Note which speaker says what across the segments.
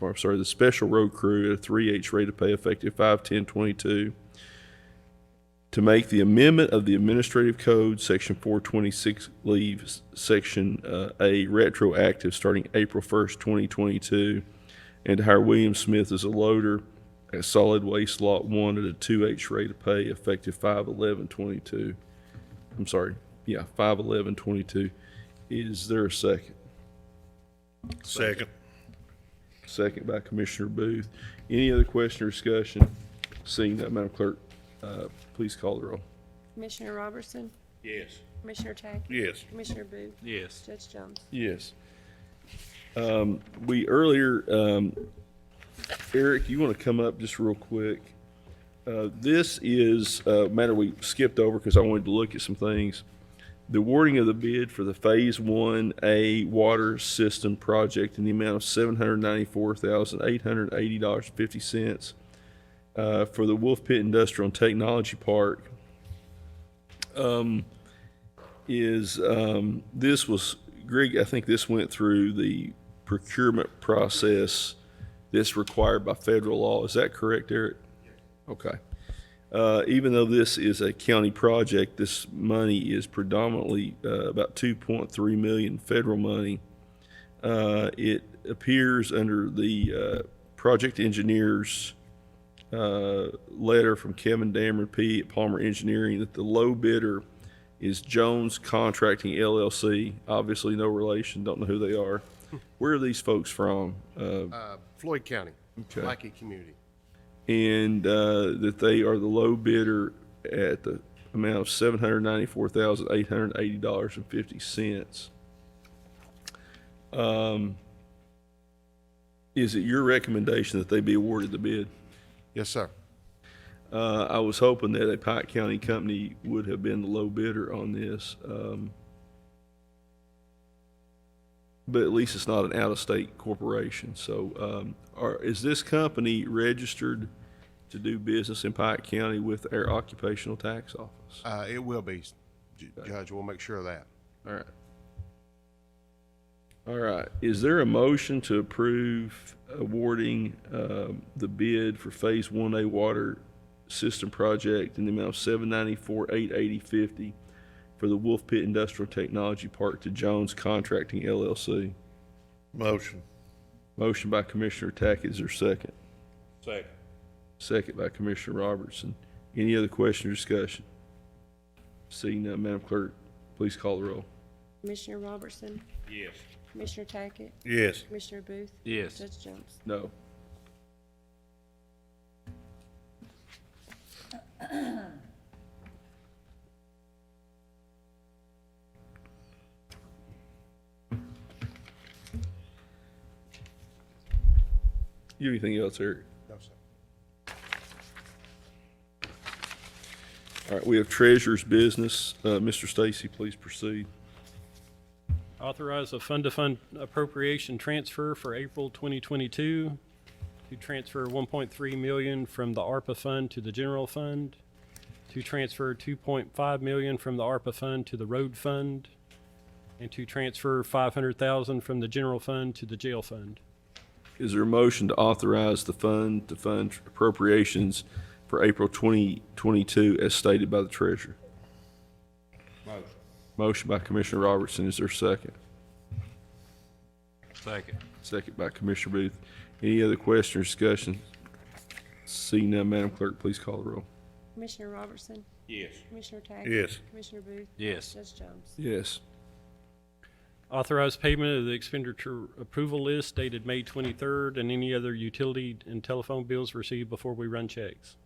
Speaker 1: I'm sorry, the special road crew at a three H rate of pay effective five ten twenty-two to make the amendment of the administrative code, section four twenty-six, leave s- section, uh, A retroactive starting April first, twenty twenty-two, and to hire William Smith as a loader at solid waste lot one at a two H rate of pay effective five eleven twenty-two. I'm sorry, yeah, five eleven twenty-two. Is there a second?
Speaker 2: Second.
Speaker 1: Second by Commissioner Booth. Any other question or discussion? Seeing that, Madam Clerk, uh, please call the roll.
Speaker 3: Commissioner Robertson,
Speaker 2: Yes.
Speaker 3: Commissioner Tackett,
Speaker 2: Yes.
Speaker 3: Commissioner Booth,
Speaker 2: Yes.
Speaker 3: Judge Jones.
Speaker 1: Yes. Um, we earlier, um, Eric, you want to come up just real quick? Uh, this is a matter we skipped over because I wanted to look at some things. The awarding of the bid for the Phase One A Water System Project in the amount of seven hundred ninety-four thousand eight hundred eighty dollars fifty cents uh, for the Wolf Pit Industrial and Technology Park is um, this was Greg. I think this went through the procurement process that's required by federal law. Is that correct, Eric? Okay. Uh, even though this is a county project, this money is predominantly uh, about 2.3 million federal money. Uh, it appears under the uh, project engineers uh, letter from Kevin Dameron P. at Palmer Engineering that the low bidder is Jones Contracting LLC. Obviously, no relation. Don't know who they are. Where are these folks from? Uh,
Speaker 4: Uh, Floyd County,
Speaker 1: Okay.
Speaker 4: Lackey Community.
Speaker 1: and uh, that they are the low bidder at the amount of seven hundred ninety-four thousand eight hundred eighty dollars and fifty cents. Um, is it your recommendation that they be awarded the bid?
Speaker 4: Yes, sir.
Speaker 1: Uh, I was hoping that a Pike County company would have been the low bidder on this. Um, but at least it's not an out-of-state corporation. So, um, are, is this company registered to do business in Pike County with our occupational tax office?
Speaker 4: Uh, It will be, J- Judge, we'll make sure of that.
Speaker 1: All right. All right. Is there a motion to approve awarding um, the bid for Phase One A Water System Project in the amount of seven ninety-four, eight eighty, fifty for the Wolf Pit Industrial Technology Park to Jones Contracting LLC?
Speaker 2: Motion.
Speaker 1: Motion by Commissioner Tackett. Is there a second?
Speaker 2: Second.
Speaker 1: Second by Commissioner Robertson. Any other question or discussion? Seeing none, Madam Clerk, please call the roll.
Speaker 3: Commissioner Robertson,
Speaker 2: Yes.
Speaker 3: Commissioner Tackett,
Speaker 2: Yes.
Speaker 3: Commissioner Booth,
Speaker 2: Yes.
Speaker 3: Judge Jones.
Speaker 1: No. You have anything else, Eric?
Speaker 4: No, sir.
Speaker 1: All right, we have treasurer's business. Uh, Mr. Stacy, please proceed.
Speaker 5: Authorize a fund-to-fund appropriation transfer for April 2022 to transfer 1.3 million from the ARPA fund to the general fund, to transfer 2.5 million from the ARPA fund to the road fund, and to transfer 500,000 from the general fund to the jail fund.
Speaker 1: Is there a motion to authorize the fund to fund appropriations for April 2022 as stated by the treasurer? Motion. Motion by Commissioner Robertson. Is there a second?
Speaker 2: Second.
Speaker 1: Second by Commissioner Booth. Any other question or discussion? Seeing none, Madam Clerk, please call the roll.
Speaker 3: Commissioner Robertson,
Speaker 2: Yes.
Speaker 3: Commissioner Tackett.
Speaker 2: Yes.
Speaker 3: Commissioner Booth,
Speaker 2: Yes.
Speaker 3: Judge Jones.
Speaker 1: Yes.
Speaker 5: Authorize payment of the expenditure approval list dated May 23rd and any other utility and telephone bills received before we run checks.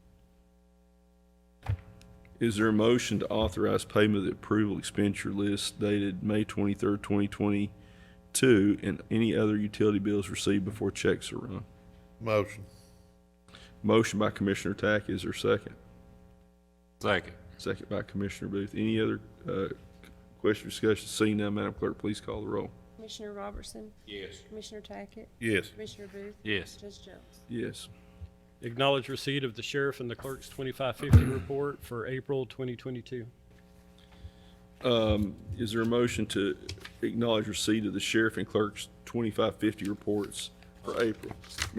Speaker 1: Is there a motion to authorize payment of the approval expenditure list dated May 23rd, 2022, and any other utility bills received before checks are run?
Speaker 2: Motion.
Speaker 1: Motion by Commissioner Tackett. Is there a second?
Speaker 2: Second.
Speaker 1: Second by Commissioner Booth. Any other uh, question or discussion? Seeing none, Madam Clerk, please call the roll.
Speaker 3: Commissioner Robertson,
Speaker 2: Yes.
Speaker 3: Commissioner Tackett,
Speaker 2: Yes.
Speaker 3: Commissioner Booth,
Speaker 2: Yes.
Speaker 3: Judge Jones.
Speaker 1: Yes.
Speaker 5: Acknowledge receipt of the sheriff and the clerk's 2550 report for April 2022.
Speaker 1: Is there a motion to acknowledge receipt of the sheriff and clerk's 2550 reports for April.